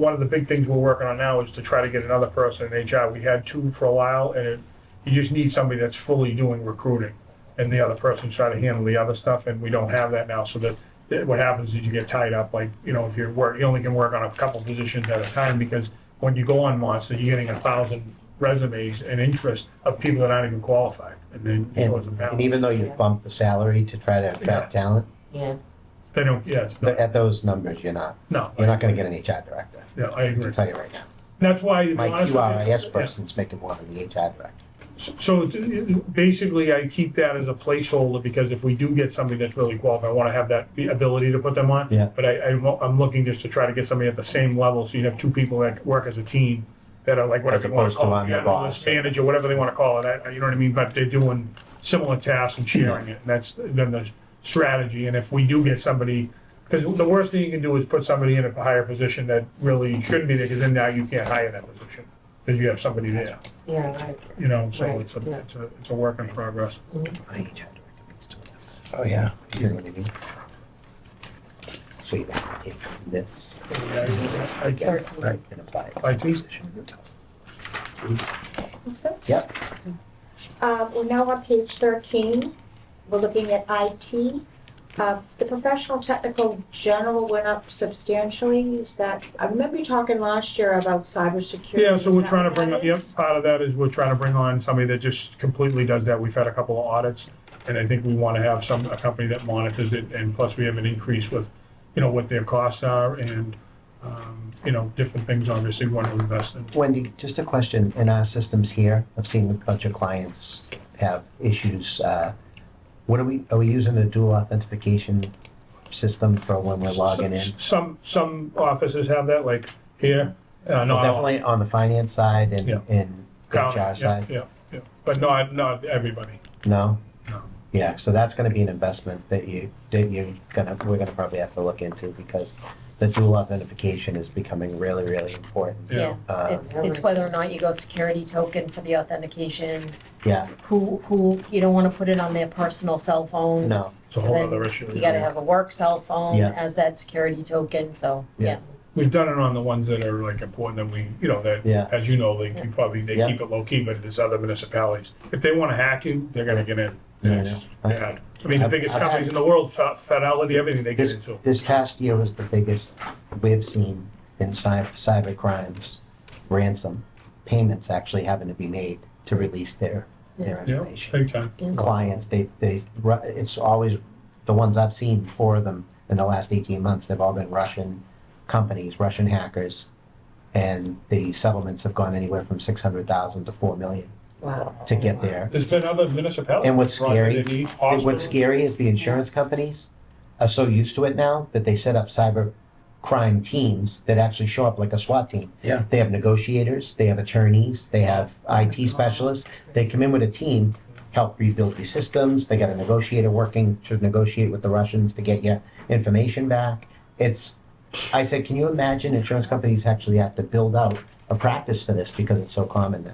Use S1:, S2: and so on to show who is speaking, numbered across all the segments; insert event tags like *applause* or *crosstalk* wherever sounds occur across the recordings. S1: one of the big things we're working on now is to try to get another person in HR. We had two for a while, and it, you just need somebody that's fully doing recruiting, and the other person's trying to handle the other stuff, and we don't have that now, so that, that what happens is you get tied up, like, you know, if you're work, you only can work on a couple positions at a time, because when you go on Monster, you're getting a thousand resumes and interest of people that aren't even qualified, and then it
S2: And,
S1: goes about.
S2: and even though you bump the salary to try to attract talent,
S3: Yeah,
S1: They don't, yeah, it's
S2: but
S1: not-
S2: at those numbers, you're not,
S1: no,
S2: you're not gonna get an HR director,
S1: yeah, I
S2: I
S1: agree.
S2: can tell you right now.
S1: That's why. to be
S2: My
S1: honest with you-
S2: QRIS
S1: yeah.
S2: person's making more than the HR director.
S1: So t- basically, I keep that as a placeholder because if we do get somebody that's really qualified, I want to have that be- ability to put them on.
S2: Yeah.
S1: But I, I, wa- I'm looking just to try to get somebody at the same level, so you have two people that work as a team that are like
S2: As
S1: whatever you want
S2: opposed
S1: to
S2: to
S1: call it,
S2: I'm the
S1: generalist,
S2: boss.
S1: manager, whatever they want to call it, I- you know what I mean? But they're doing similar tasks and sharing it, and that's then the strategy. And if we do get somebody, because the worst thing you can do is put somebody in a higher position that really shouldn't be there, because then now you can't hire that position, because you have somebody there
S3: yeah, right.
S1: you know, so
S3: Right,
S1: it's a,
S3: yeah.
S1: it's a, it's a work in progress.
S2: My HR director makes two of them.
S4: Oh, yeah.
S2: You know what I mean? So you have to take this, this,
S1: I- I-
S2: again, and apply
S1: I
S2: it to the
S1: do,
S2: position.
S3: What's that?
S2: Yep,
S5: Uh, We're now on page 13. We're looking at IT. Uh, The professional, technical, general went up substantially. Is that, I remember you talking last year about cybersecurity.
S1: yeah, so
S5: Is
S1: we're
S5: that
S1: trying to
S5: what
S1: bring,
S5: that
S1: up. yep,
S5: is?
S1: part of that is we're trying to bring on somebody that just completely does that. We've had a couple of audits, and I think we want to have some, a company that monitors it, and plus we have an increase with, you know, what their costs are and, um, you know, different things obviously we want to invest in.
S2: Wendy, just a question, in our systems here, I've seen a bunch of clients have issues, uh, what are we, are we using a dual authentication system for when we're logging in?
S1: Some, some offices have that, like here, uh, not all.
S2: Definitely on the finance side
S1: Yeah.
S2: and, and
S1: County,
S2: HR
S1: Yeah,
S2: side,
S1: yeah, yeah, but not, not everybody.
S2: no?
S1: No.
S2: Yeah, so that's gonna be an investment that you, that you're gonna, we're gonna probably have to look into because the dual authentication is becoming really, really important.
S1: Yeah.
S3: Yeah,
S2: Um,
S3: it's, it's whether or not you go security token for the authentication,
S2: yeah,
S3: who, who, you don't wanna put it on their personal cell phone.
S2: no,
S1: It's a whole
S3: Then
S1: other issue.
S3: You gotta have a work cell phone
S2: Yeah.
S3: as that security token, so,
S2: Yeah.
S3: yeah.
S1: We've done it on the ones that are like important that we, you know, that,
S2: Yeah.
S1: as you know, they you probably, they
S2: Yeah.
S1: keep it low key, but there's other municipalities. If they wanna hack you, they're gonna get in.
S2: Yeah, I
S1: It's
S2: know. I-
S1: bad. I mean, the
S2: I've-
S1: biggest
S2: I've had-
S1: companies in the world, Fi- Fidelity, everything they get
S2: This,
S1: into.
S2: this past year was the biggest we've seen in cy- cyber crimes, ransom payments actually having to be made to release their, their
S1: Yeah,
S2: information.
S1: big time.
S2: Clients, they, they, ru- it's always, the ones I've seen, four of them in the last eighteen months, they've all been Russian companies, Russian hackers. And the settlements have gone anywhere from six hundred thousand to four million
S3: Wow.
S2: to get there.
S1: There's been other municipalities.
S2: And what's
S1: right, that they
S2: scary-
S1: need
S2: And
S1: hospitals.
S2: what's scary is the insurance companies are so used to it now that they set up cyber crime teams that actually show up like a SWAT team.
S4: Yeah.
S2: They have negotiators, they have attorneys, they have IT specialists. They come in with a team, help rebuild these systems. They got a negotiator working to negotiate with the Russians to get your information back. It's, I said, can you imagine insurance companies actually have to build out a practice for this because it's so common now?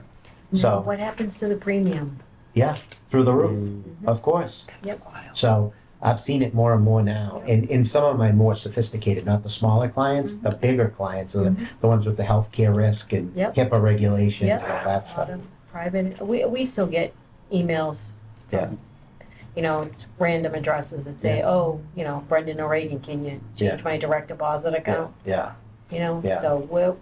S3: Now,
S2: So,
S3: what happens to the premium?
S2: yeah, through the roof, of course.
S3: Mm-hmm. Yep.
S2: So I've seen it more and more now. And in some of my more sophisticated, not the smaller clients, the bigger clients, the, the ones with the healthcare risk and
S3: Mm-hmm. Yep.
S2: HIPAA regulations
S3: Yep.
S2: and all that stuff.
S3: Private, we, we still get emails. from,
S2: Yeah.
S3: You know, it's random addresses that say, oh, you know, Brendan O'Regan, can you
S2: Yeah.
S3: change my direct deposit account?
S2: Yeah.
S3: You know,
S2: Yeah.
S3: so we're,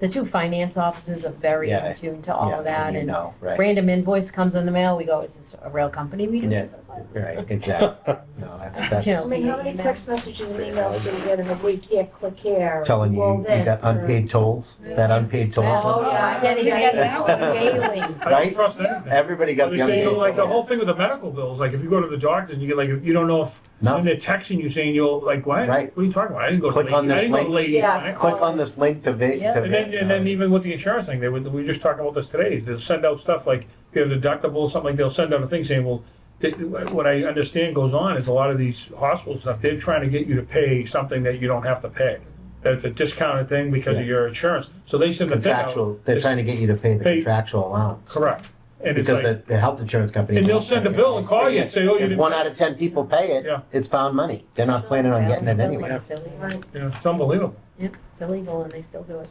S3: the two finance offices are very
S2: Yeah.
S3: in tune to all
S2: yeah,
S3: of that
S2: You
S3: and
S2: know, right.
S3: random invoice comes in the mail, we go, is this a real company we do
S2: Yeah.
S3: business with?
S2: Right.
S3: *laughs*
S2: Exactly. no, that's, that's
S3: Yeah.
S5: I mean, how many text messages and emails do we get in a week? Here, click here.
S2: telling you,
S5: roll
S2: you got
S5: this, or-
S2: unpaid tolls, that unpaid toll.
S5: Oh,
S3: Oh,
S5: yeah.
S3: I get
S5: *laughs*
S3: it daily.
S1: I
S2: right?
S1: don't trust anything.
S2: Everybody got
S1: They
S2: the
S1: say,
S2: unpaid
S1: like, the
S2: toll.
S1: whole thing with the medical bills, like, if you go to the doctors and you get like, you don't know if, and
S2: No.
S1: they're texting you saying you'll, like, what?
S2: Right.
S1: What are you talking about? I didn't go to
S2: Click on
S1: Lady- I
S2: this
S1: didn't go to
S2: link.
S1: Lady
S5: Yes.
S1: Di-
S2: Click on this link to uh, va-
S3: Yeah.
S2: to
S1: And then,
S2: va-
S1: and then even with the insurance thing, they would, we were just talking about this today, is they'll send out stuff like, if you have deductible or something, like they'll send out a thing saying, well, it- what I understand goes on is a lot of these hospitals, stuff, they're trying to get you to pay something that you don't have to pay. That's a discounted thing because of your insurance, so they send the thing out.
S2: contractual, they're trying to get you to pay the
S1: Pay-
S2: contractual allowance.
S1: Correct. And it's
S2: Because
S1: like,
S2: the, the health insurance company.
S1: and they'll
S2: won't
S1: send a
S2: pay it.
S1: bill and call you and say, oh, you
S2: If
S1: didn't,
S2: one out of ten people pay
S1: Yeah.
S2: it, it's found money. They're not planning on getting it anyway.
S3: It's illegal.
S1: you know, it's unbelievable.
S3: Yep, It's illegal and they still do it.